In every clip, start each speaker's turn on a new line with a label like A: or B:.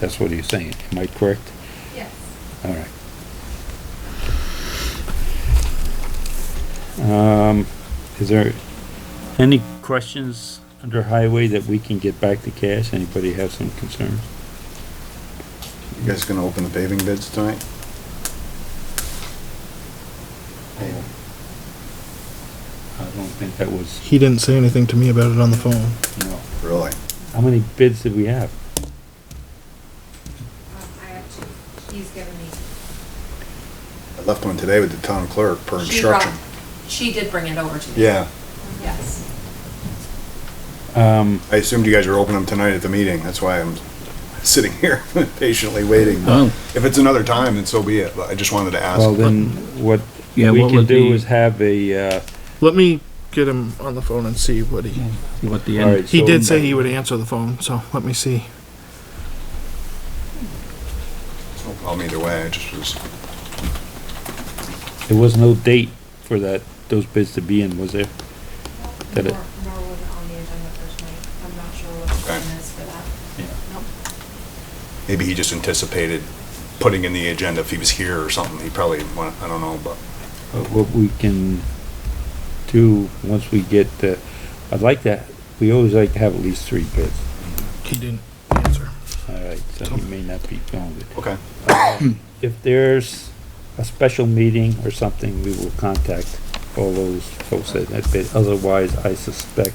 A: That's what he's saying. Am I correct?
B: Yes.
A: All right. Um, is there any questions under highway that we can get back to cash? Anybody have some concerns?
C: You guys gonna open the paving bids tonight?
A: I don't think that was,
D: He didn't say anything to me about it on the phone.
A: no.
C: Really?
A: How many bids did we have?
B: Um, I actually, he's given me.
C: I left one today with the town clerk per
E: She brought-
C: instruction.
E: She did bring it over to me.
C: Yeah,
E: Yes.
A: Um,
C: I assumed you guys were opening them tonight at the meeting, that's why I'm sitting here patiently waiting.
F: Oh.
C: If it's another time, then so be it, but I just wanted to
A: well
C: ask.
A: then, what we
F: Yeah, what
A: can
F: would
A: do
F: be-
A: is have a, uh,
D: Let me get him on the phone and see what he.
F: What the
A: all right.
F: end,
D: He
A: so-
D: did say he would answer the phone, so let me see.
C: I'm either way, I just was,
A: There was no date for that, those bids to be in, was there? Did it-
B: Nor nor was it on the agenda for tonight. I'm not sure what the
C: Okay.
B: plan is for that.
A: Yeah.
B: Nope.
C: maybe he just anticipated putting in the agenda if he was here or something, he probably, wa- I don't know, but.
A: Uh, what we can do once we get the, I'd like to, we always like to have at least three bids.
D: He didn't answer.
A: All right, so he may not be going with.
C: Okay.
A: If there's a special meeting or something, we will contact all those folks that have bid. Otherwise, I suspect,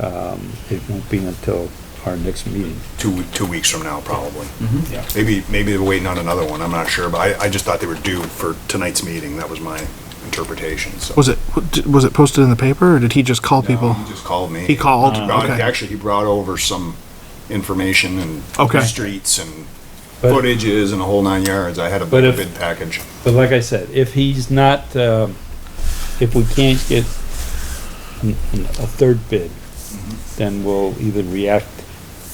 A: um, it won't be until our next meeting.
C: Two, two weeks from now, probably.
F: Mm-hmm.
A: Yeah.
C: Maybe, maybe they're waiting on another one, I'm not sure, but I, I just thought they were due for tonight's meeting, that was my interpretation, so.
D: Was it was it posted in the paper or did he just call people?
C: He just called me.
D: He called.
C: He brought-
D: okay.
C: Actually, he brought over some information and
D: Okay.
C: streets and
A: But-
C: footages and a whole nine yards. I had a
A: But if-
C: bid package.
A: But like I said, if he's not, um, if we can't get n- n- a third bid, then we'll either react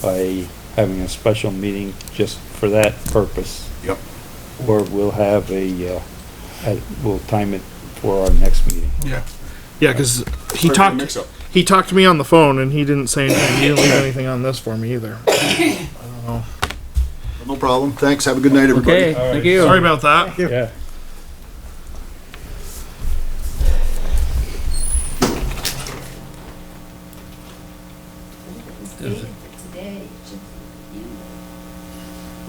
A: by having a special meeting just for that purpose,
C: Yep.
A: or we'll have a, uh, a- we'll time it for our next meeting.
C: Yeah.
D: Yeah, because he
C: Or a
D: talked.
C: mix-up.
D: He talked to me on the phone and he didn't say anything. He didn't leave anything on this for me either.
C: No problem. Thanks. Have a good night, everybody.
F: okay, thank you.
D: Sorry about that.
A: Yeah.
B: Date for today, just, you know.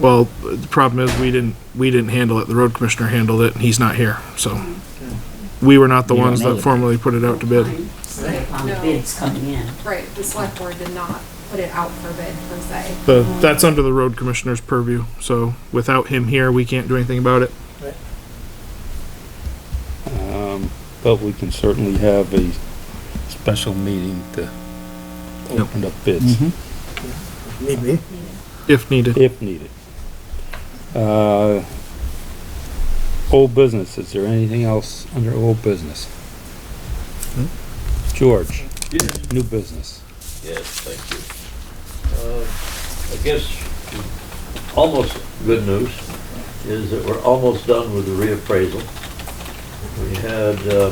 D: Well, the problem is we didn't we didn't handle it. The road commissioner handled it and he's not here, so we were not the
F: You don't
D: ones
F: know
D: that
F: that.
D: formally put it out to bid.
E: Right,
B: on the No. bids
E: bids coming in.
B: Right, the select board did not put it out for bid per se.
D: The, that's under the road commissioner's purview, so without him here, we can't do anything about it.
A: Um, but we can certainly have a special meeting to open up bids.
D: If needed.
A: if needed. Uh, Old business, is there anything else under old business? George? New business.
G: Yes, thank you. Uh, I guess almost good news is that we're almost done with the reappraisal. We had uh,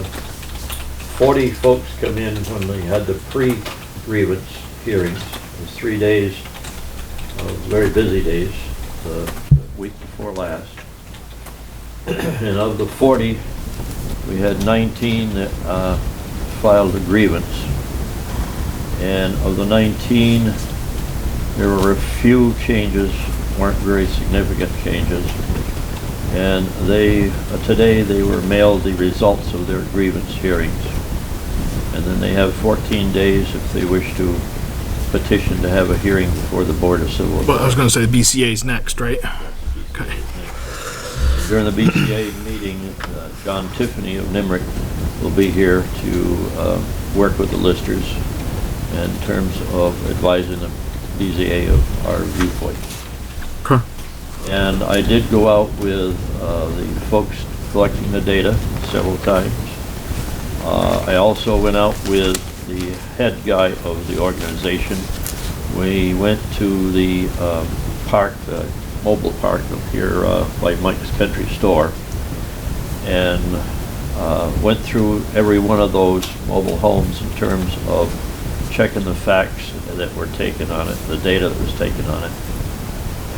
G: 40 folks come in when we had the pre-grievance hearings. It was three days, uh, very busy days, uh, the week before last. And of the 40, we had 19 that uh, filed a grievance. And of the 19, there were a few changes, weren't very significant changes. And they, uh, today, they were mailed the results of their grievance hearings. And then they have 14 days if they wish to petition to have a hearing before the Board of Civil
D: But I was
G: Appeals.
D: gonna say the BCA's next, right? Okay.
G: During the BCA meeting, uh, John Tiffany of Nimerick will be here to uh, work with the listers in terms of advising the BZA of our viewpoint.
D: Okay.
G: And I did go out with uh, the folks collecting the data several times. Uh, I also went out with the head guy of the organization. We went to the um, park, the mobile park up here uh, by Mike's Country Store, and uh, went through every one of those mobile homes in terms of checking the facts that were taken on it, the data that was taken on it